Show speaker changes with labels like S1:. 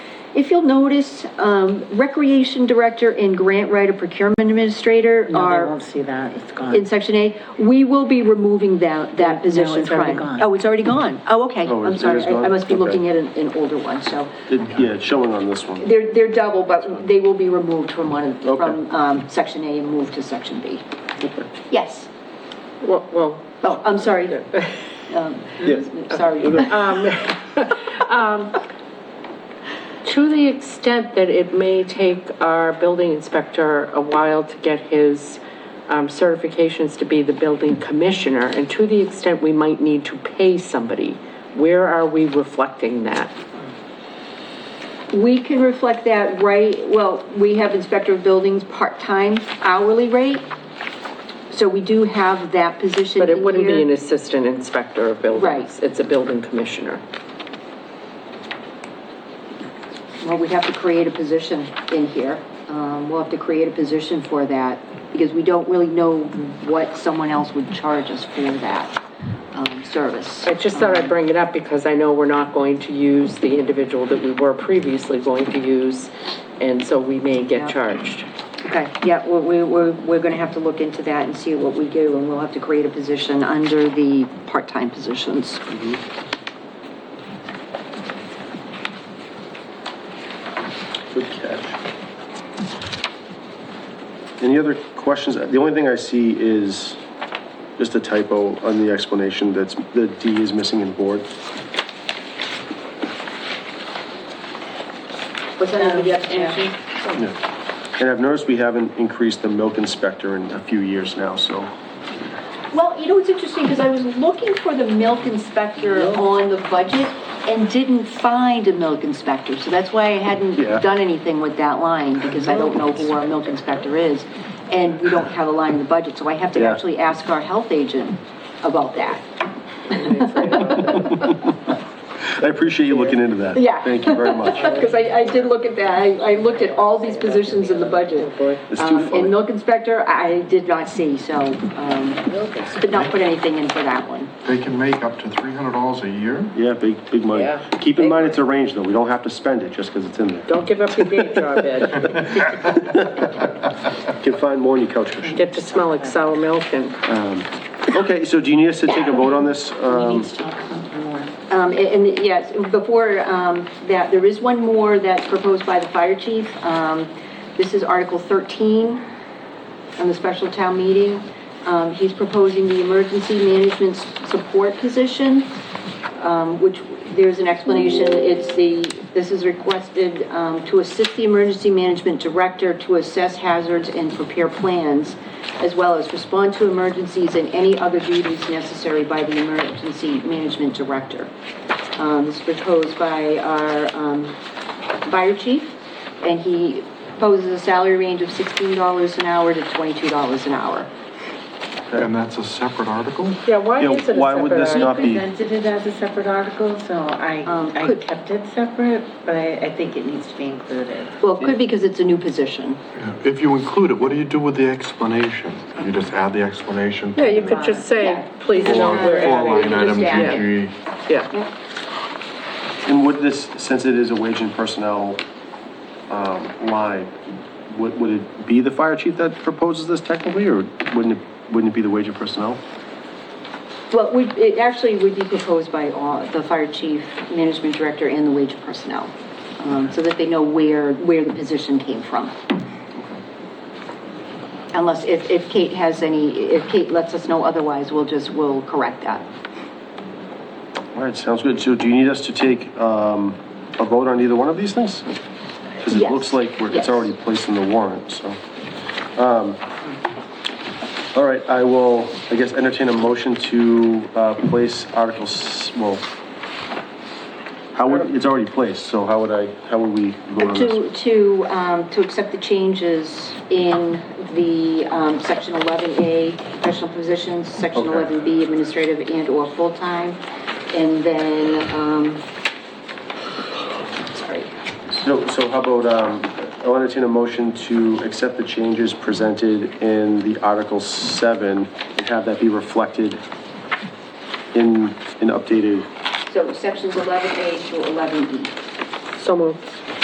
S1: If you'll notice, um, Recreation Director and Grant Writer Procurement Administrator
S2: No, they
S1: are
S2: won't see that, it's
S1: in
S2: gone.
S1: Section A. We will be removing that, that
S2: it's
S1: position.
S2: already
S1: from-
S2: gone.
S1: Oh, it's already gone. Oh, okay.
S3: Oh,
S1: I'm
S3: it- it
S1: sorry.
S3: is
S1: I- I
S3: gone?
S1: must be
S3: Okay.
S1: looking at an, an older one, so.
S3: It- Yeah, it's showing on this one.
S1: They're, they're double, but they will be removed from one, of-
S3: Okay.
S1: from, um, Section A and moved to Section B. Yes.
S4: Well, well,
S1: Oh, I'm sorry. Um,
S3: Yes.
S1: Sorry.
S4: to the extent that it may take our building inspector a while to get his um, certifications to be the building commissioner, and to the extent we might need to pay somebody, where are we reflecting that?
S1: We can reflect that right, well, we have inspector of buildings part-time hourly rate, so we do have that position
S4: But it
S1: in
S4: wouldn't be
S1: here.
S4: an assistant inspector of buildings.
S1: Right.
S4: It's a building commissioner.
S1: Well, we have to create a position in here. Um, we'll have to create a position for that, because we don't really know what someone else would charge us for that, um, service.
S4: I just thought I'd bring it up because I know we're not going to use the individual that we were previously going to use, and so we may
S1: Yeah.
S4: get charged.
S1: Okay, yeah, we, we, we're, we're gonna have to look into that and see what we do, and we'll have to create a position under the part-time positions.
S3: Good catch. Any other questions? The only thing I see is just a typo on the explanation that's, the D is missing in board.
S1: What's that under the explanation?
S3: And I've noticed we haven't increased the milk inspector in a few years now, so.
S1: Well, you know, it's interesting, because I was looking for the milk inspector on the budget and didn't find a milk inspector, so that's why I hadn't
S3: Yeah.
S1: done anything with that line, because I don't know who our milk inspector is, and we don't have a line in the budget, so I have to
S3: Yeah.
S1: actually ask our health agent about that.
S3: I appreciate you looking into that.
S1: Yeah.
S3: Thank you very much.
S1: Because I, I did look at that, I, I looked at all these positions in the budget.
S3: Oh, It's
S1: Um,
S3: too funny.
S1: And milk inspector, I did not see, so, um, did not put anything in for that one.
S5: They can make up to three hundred dollars a year?
S3: Yeah, big, big money.
S4: Yeah.
S3: Keep in mind, it's a range, though. We don't have to spend it just because it's in there.
S4: Don't give up your day job, Ed.
S3: You can find more in your couch cushion.
S4: Get to smell like sour milk and
S3: Okay, so do you need us to take a vote on this?
S2: We
S3: Um,
S2: need to talk about more.
S1: Um, and, and yes, before, um, that, there is one more that's proposed by the fire chief. Um, this is Article thirteen on the special town meeting. Um, he's proposing the emergency management s- support position, um, which, there's an explanation. It's the, this is requested, um, to assist the emergency management director to assess hazards and prepare plans, as well as respond to emergencies and any other duties necessary by the emergency management director. Um, this is proposed by our, um, fire chief, and he proposes a salary range of sixteen dollars an hour to twenty-two dollars an hour.
S5: And that's a separate article?
S4: Yeah, why
S3: You know,
S4: is it a
S3: why would
S4: separate
S3: this
S4: item?
S3: not be?
S2: Presented it as a separate article, so I,
S1: Um,
S2: I
S1: could-
S2: kept it separate, but I think it needs to be included.
S1: Well, it could be because it's a new position.
S5: If you include it, what do you do with the explanation? You just add the explanation?
S4: Yeah, you could just say, please
S5: Four,
S4: note, we're
S5: four
S4: adding,
S5: line item,
S2: Yeah.
S5: GG.
S4: yeah.
S3: And would this, since it is a wage and personnel um, line, would would it be the fire chief that proposes this technically, or wouldn't it, wouldn't it be the wage and personnel?
S1: Well, we, it actually would be proposed by all, the fire chief, management director, and the wage personnel, um, so that they know where, where the position came from. Unless, if, if Kate has any, if Kate lets us know otherwise, we'll just, we'll correct that.
S3: All right, sounds good. So do you need us to take um, a vote on either one of these things? Because it
S1: Yes.
S3: looks like we're-
S1: Yes.
S3: it's already placed in the warrant, so. Um, All right, I will, I guess, entertain a motion to uh, place Article, s- well, how would, it's already placed, so how would I, how would we vote on this?
S1: To, to, um, to accept the changes in the, um, section eleven A, professional positions, section
S3: Okay.
S1: eleven B, administrative and/or full-time, and then, um, sorry,
S3: No, so how about, um, I'll entertain a motion to accept the changes presented in the Article 7 and have that be reflected in an updated,
S1: so sections eleven A to eleven E.
S4: So moved.